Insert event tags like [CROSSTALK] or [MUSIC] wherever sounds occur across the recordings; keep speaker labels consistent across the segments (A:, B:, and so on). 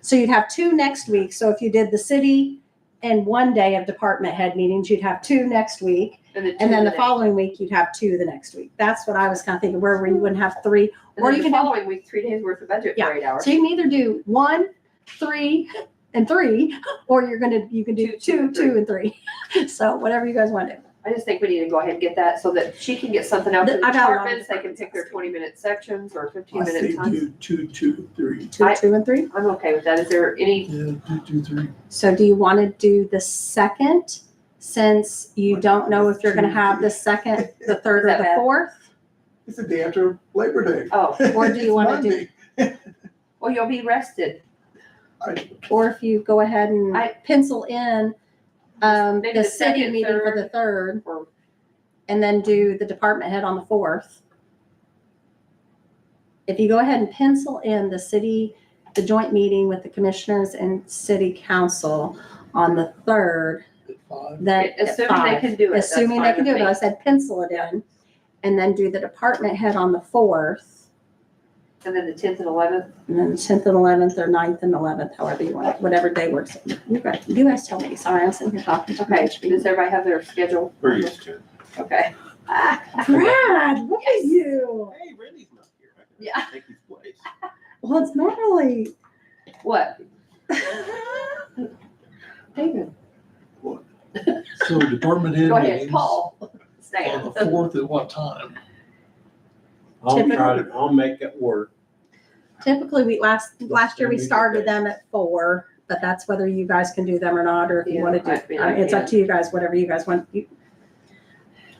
A: So you'd have two next week. So if you did the city and one day of department head meetings, you'd have two next week.
B: then
A: And then the
B: next-
A: following week, you'd have two the next week. That's what I was kind of thinking, where you wouldn't have three.
B: and
A: or
B: then
A: you
B: the
A: can do-
B: following week, three days worth of budget
A: Yeah.
B: for eight hours.
A: So you can either do one, three, and three, or you're gonna, you can do two,
B: Two, two,
A: two, and three. [LAUGHS] So whatever you guys want to do.
B: I just think we need to go ahead and get that so that she can get something out to
A: The-
B: the
A: I got a lot of
B: departments, they can pick their twenty minute sections or fifteen minute times.
C: do two, two, three.
A: Two,
B: I-
A: two, and three.
B: I'm okay with that. Is there any,
C: Yeah, two, two, three.
A: So do you want to do the second, since you don't know if you're gonna have the second, the third, or
B: Is that
A: the
B: bad?
A: fourth?
C: It's the day after Labor Day.
B: oh,
A: [LAUGHS] Or do you wanna do-
C: Monday.
B: well, you'll be rested.
C: I-
A: Or if you go ahead and
B: I-
A: pencil in, um,
B: Maybe
A: the
B: the
A: city
B: second,
A: meeting for the third,
B: Or-
A: and then do the department head on the fourth. If you go ahead and pencil in the city, the joint meeting with the commissioners and city council on the third,
C: Five.
A: then at
B: Assuming they
A: five,
B: can do it. that's
A: assuming they
B: fine
A: can do
B: with
A: it, but I
B: me.
A: said pencil it in, and then do the department head on the fourth,
B: And then the tenth and eleventh,
A: and then tenth and eleventh, or 9th and eleventh, however you want, it, whatever day works. You guys, you guys tell me, sorry, I'm sitting here talking to
B: okay,
A: my
B: does everybody have their schedule?
D: We're used to it.
B: Okay. [LAUGHS] Ah,
A: Brad, look at you.
D: Hey, Randy's not here. I can
B: Yeah.
D: Take his place.
A: Well, it's
B: [LAUGHS]
A: Natalie.
B: What? David,
C: So department head
B: go ahead,
C: meetings on
B: Paul, Stan.
C: the fourth at what time?
D: I'll
A: Typical.
D: try to, I'll make it work.
A: Typically, we last, last year we
D: Maybe good
A: started
D: day.
A: them at four, but that's whether you guys can do them or not, or if you
B: Yeah,
A: want to
B: I
A: do,
B: mean,
A: I
B: I
A: mean, it's up
B: can.
A: to you guys, whatever you guys want. You-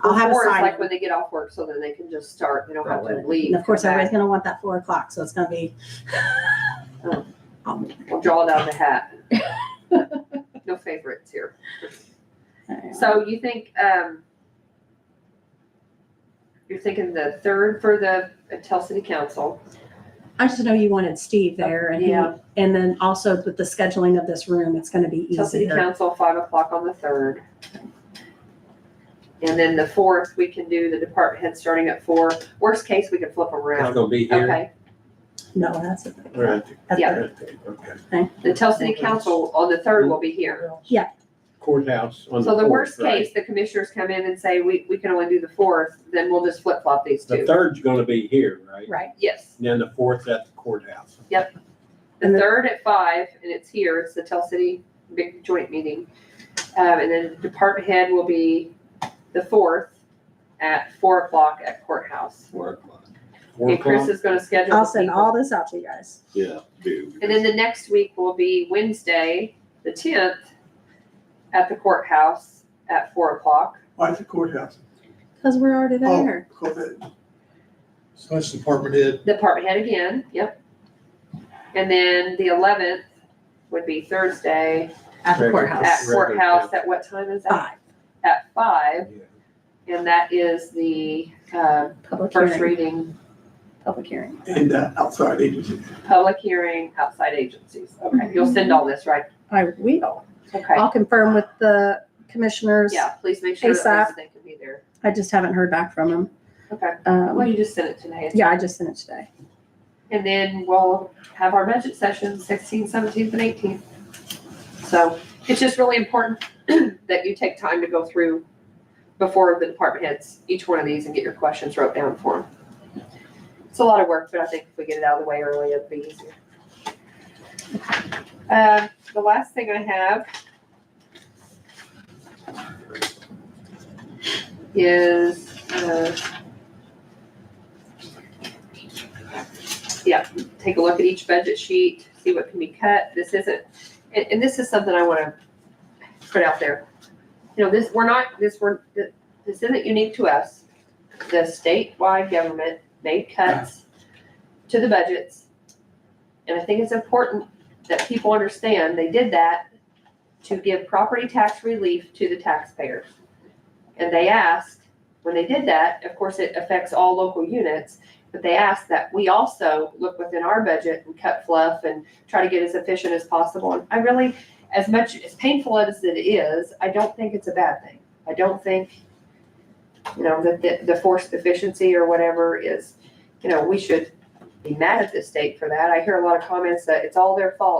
A: I'll have a
B: Four is
A: sign.
B: Like when they get off work, so then they can just start, they don't have to leave.
A: And of course,
B: come back.
A: everybody's gonna want that four o'clock, so it's gonna be.
B: We'll draw it out of the hat. [LAUGHS] No favorites here. So you think, um, you're thinking the third for the uh, Tell City Council?
A: I just know you wanted Steve there and, he-
B: Yeah.
A: and then also with the scheduling of this room, it's gonna be
B: Tell City
A: easier.
B: Council, five o'clock on the third. And then the fourth, we can do the department head starting at four. Worst case, we can flip them
D: It's
B: around.
D: gonna be here.
B: Okay,
A: No, that's.
D: We're at the-
A: that's-
B: Yeah.
D: we're at the- Okay.
B: the Tell City Council on the third will be here.
D: Courthouse on the fourth.
B: So the worst
D: right?
B: case, the commissioners come in and say, we, we can only do the fourth, then we'll just flip flop these
D: The
B: two.
D: third's gonna be here, right?
A: Right.
B: Yes.
D: Then the fourth at the courthouse.
B: The
A: And the-
B: third at five, and it's here, it's the Tell City big joint meeting. Um, and then department head will be the fourth at four o'clock at courthouse.
D: Four o'clock. Four
B: And Chris
D: o'clock?
B: is gonna schedule
A: I'll
B: the
A: send
B: people.
A: all this out to you guys.
D: Yeah, do.
B: And then the next week will be Wednesday, the tenth, at the courthouse at four o'clock.
E: Why the courthouse?
A: Cause we're already
E: Oh,
A: there.
E: COVID.
C: So that's department head.
B: Department head again, yep. And then the eleventh would be Thursday
A: At the
D: Right.
B: at
A: courthouse.
D: Right. Regular
B: courthouse, at what time is that?
A: Five,
B: At five,
D: Yeah.
B: and that is the, uh,
A: public
B: first
A: hearing,
B: reading,
A: public hearing.
E: And uh, outside agency.
B: public hearing, outside agencies. Okay, you'll send
A: Mhm.
B: all this, right?
A: I will.
B: Okay,
A: I'll confirm with the commissioners.
B: yeah, please make sure that they can be there.
A: I just haven't heard back from them.
B: Okay, well,
A: Um,
B: you just sent it today.
A: yeah, I just sent it today.
B: And then we'll have our budget session sixteenth, seventeenth, and eighteenth. So it's just really important [CLEARS THROAT] that you take time to go through before the department heads, each one of these, and get your questions wrote down for them. It's a lot of work, but I think if we get it out of the way early, it'll be easier. Uh, the last thing I have is, uh, take a look at each budget sheet, see what can be cut. This isn't, and, and this is something I want to put out there. You know, this, we're not, this, we're, th- this isn't unique to us. The statewide government made cuts to the budgets. And I think it's important that people understand they did that to give property tax relief to the taxpayers. And they asked, when they did that, of course, it affects all local units. But they asked that we also look within our budget and cut fluff and try to get as efficient as possible. And I really, as much, as painful as it is, I don't think it's a bad thing. I don't think, you know, that the, the forced efficiency or whatever is, you know, we should be mad at the state for that. I hear a lot of comments that it's all their fault.